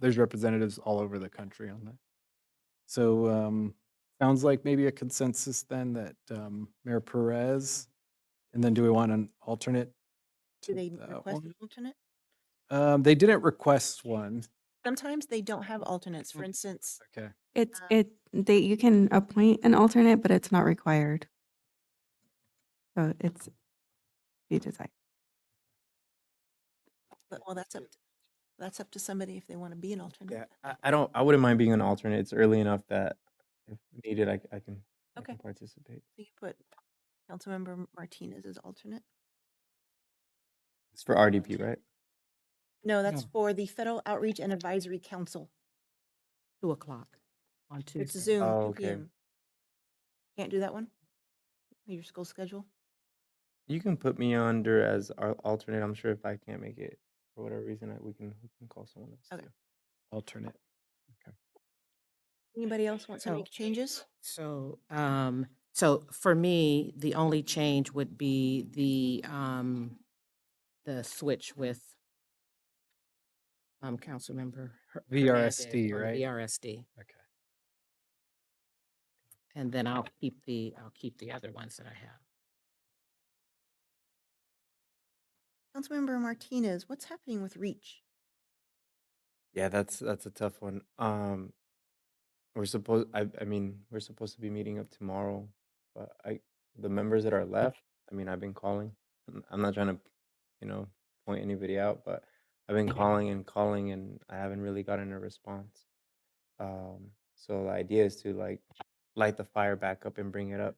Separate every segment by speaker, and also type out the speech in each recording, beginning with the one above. Speaker 1: there's representatives all over the country on that. So um, sounds like maybe a consensus then that um, Mayor Perez, and then do we want an alternate?
Speaker 2: Do
Speaker 1: to
Speaker 2: they
Speaker 1: that
Speaker 2: request
Speaker 1: one?
Speaker 2: an alternate?
Speaker 1: Um, they didn't request one.
Speaker 2: Sometimes they don't have alternates. For
Speaker 1: Okay.
Speaker 2: instance,
Speaker 1: Okay.
Speaker 3: It's
Speaker 2: Um,
Speaker 3: it they you can appoint an alternate, but it's not required. So it's you decide.
Speaker 2: but- well, that's up, to- that's up to somebody if they want to be an
Speaker 4: Yeah,
Speaker 2: alternate.
Speaker 4: I, I don't. I wouldn't mind being an alternate. It's early enough that if needed, I, c- I can. I
Speaker 2: Okay.
Speaker 4: can participate.
Speaker 2: So you put Councilmember Martinez as alternate.
Speaker 4: It's for RDP, right?
Speaker 2: No, that's for the Federal Outreach and Advisory Council.
Speaker 5: two o'clock on Tuesday.
Speaker 2: It's Zoom,
Speaker 4: Oh,
Speaker 2: two
Speaker 4: okay.
Speaker 2: PM. Can't do that one? Your school schedule?
Speaker 4: You can put me under as our alternate. I'm sure if I can't make it for whatever reason, I, we can we can call someone else.
Speaker 2: Okay.
Speaker 4: too.
Speaker 1: Alternate.
Speaker 2: Anybody else want to
Speaker 5: So-
Speaker 2: make changes?
Speaker 5: So, um, so for me, the only change would be the, um, the switch with, um, Councilmember. Her- Hernandez
Speaker 1: VRSD,
Speaker 5: on the
Speaker 1: right?
Speaker 5: VRSD.
Speaker 1: Okay.
Speaker 5: And then I'll keep the, I'll keep the other ones that I have.
Speaker 2: Councilmember Martinez, what's happening with REACH?
Speaker 4: Yeah, that's that's a tough one. Um, we're supposed. I I mean, we're supposed to be meeting up tomorrow, but I the members that are left. I mean, I've been calling. I'm, I'm not trying to, you know, point anybody out, but I've been calling and calling, and I haven't really gotten a response. Um, so the idea is to like light the fire back up and bring it up.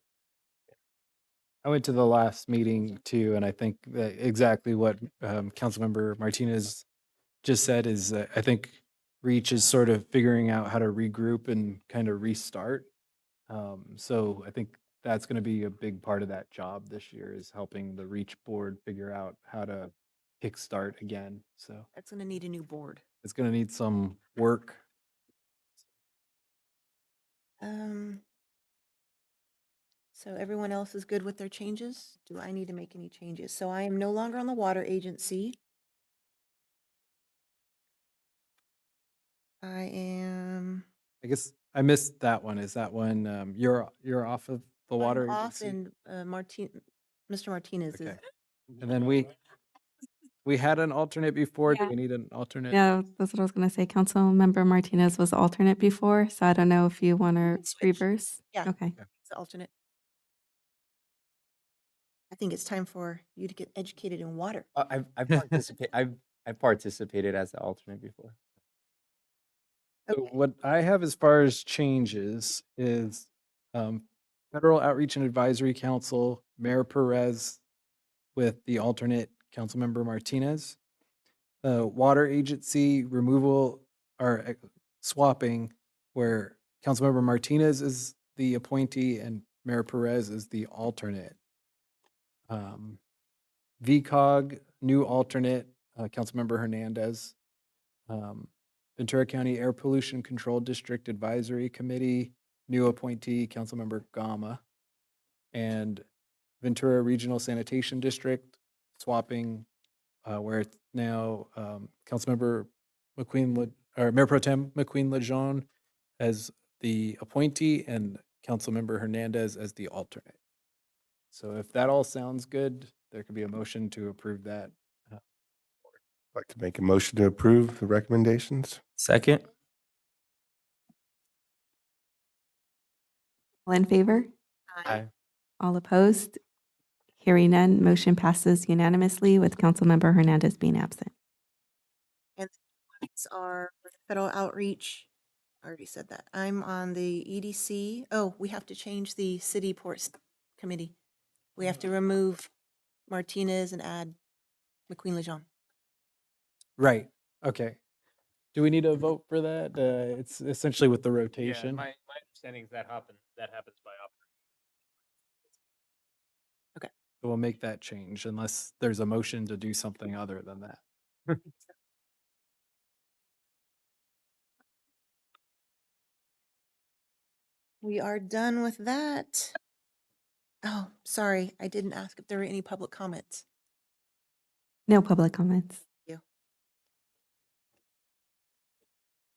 Speaker 1: I went to the last meeting too, and I think that exactly what um, Councilmember Martinez just said is that I think Reach is sort of figuring out how to regroup and kind of restart. Um, so I think that's going to be a big part of that job this year is helping the Reach board figure out how to kickstart again. So
Speaker 2: That's gonna need a new board.
Speaker 1: it's going to need some work.
Speaker 2: Um, so everyone else is good with their changes? Do I need to make any changes? So I am no longer on the water agency. I am.
Speaker 1: I guess I missed that one. Is that one um, you're you're off of the
Speaker 2: I'm
Speaker 1: water
Speaker 2: Off
Speaker 1: agency?
Speaker 2: and uh, Martin, Mr. Martinez is.
Speaker 1: Okay. And then we, we had an alternate before. Do
Speaker 3: Yeah.
Speaker 1: we need an alternate?
Speaker 3: Yeah, that's what I was gonna say. Councilmember Martinez was alternate before, so I don't know if you want to
Speaker 2: switch.
Speaker 3: reverse.
Speaker 2: Yeah.
Speaker 3: Okay.
Speaker 2: It's the alternate. I think it's time for you to get educated in water.
Speaker 4: Uh, I've I've participated. I've I've participated as the alternate before.
Speaker 1: So
Speaker 2: Okay,
Speaker 1: what I have as far as changes is um, Federal Outreach and Advisory Council, Mayor Perez with the alternate Councilmember Martinez. The Water Agency removal or uh, swapping where Councilmember Martinez is the appointee and Mayor Perez is the alternate. Um, VCOG, new alternate, uh, Councilmember Hernandez. Um, Ventura County Air Pollution Control District Advisory Committee, new appointee, Councilmember Gama. And Ventura Regional Sanitation District, swapping, uh, where it's now, um, Councilmember McQueen, Le- or Mayor Pro Tem McQueen Lejeune as the appointee and Councilmember Hernandez as the alternate. So if that all sounds good, there could be a motion to approve that.
Speaker 6: Like to make a motion to approve the recommendations?
Speaker 4: Second.
Speaker 3: All in favor?
Speaker 4: Aye.
Speaker 3: All opposed? Hearing none, motion passes unanimously with Councilmember Hernandez being absent.
Speaker 2: These are federal outreach. I already said that. I'm on the EDC. Oh, we have to change the city ports committee. We have to remove Martinez and add McQueen Lejeune.
Speaker 1: Right, okay. Do we need a vote for that? Uh, it's essentially with the rotation.
Speaker 7: Mm-hmm. Yeah, my, my understanding is that happen that happens by operation.
Speaker 1: We'll make that change unless there's a motion to do something other than that.
Speaker 2: We are done with that. Oh, sorry, I didn't ask if there were any public comments.
Speaker 3: No public comments.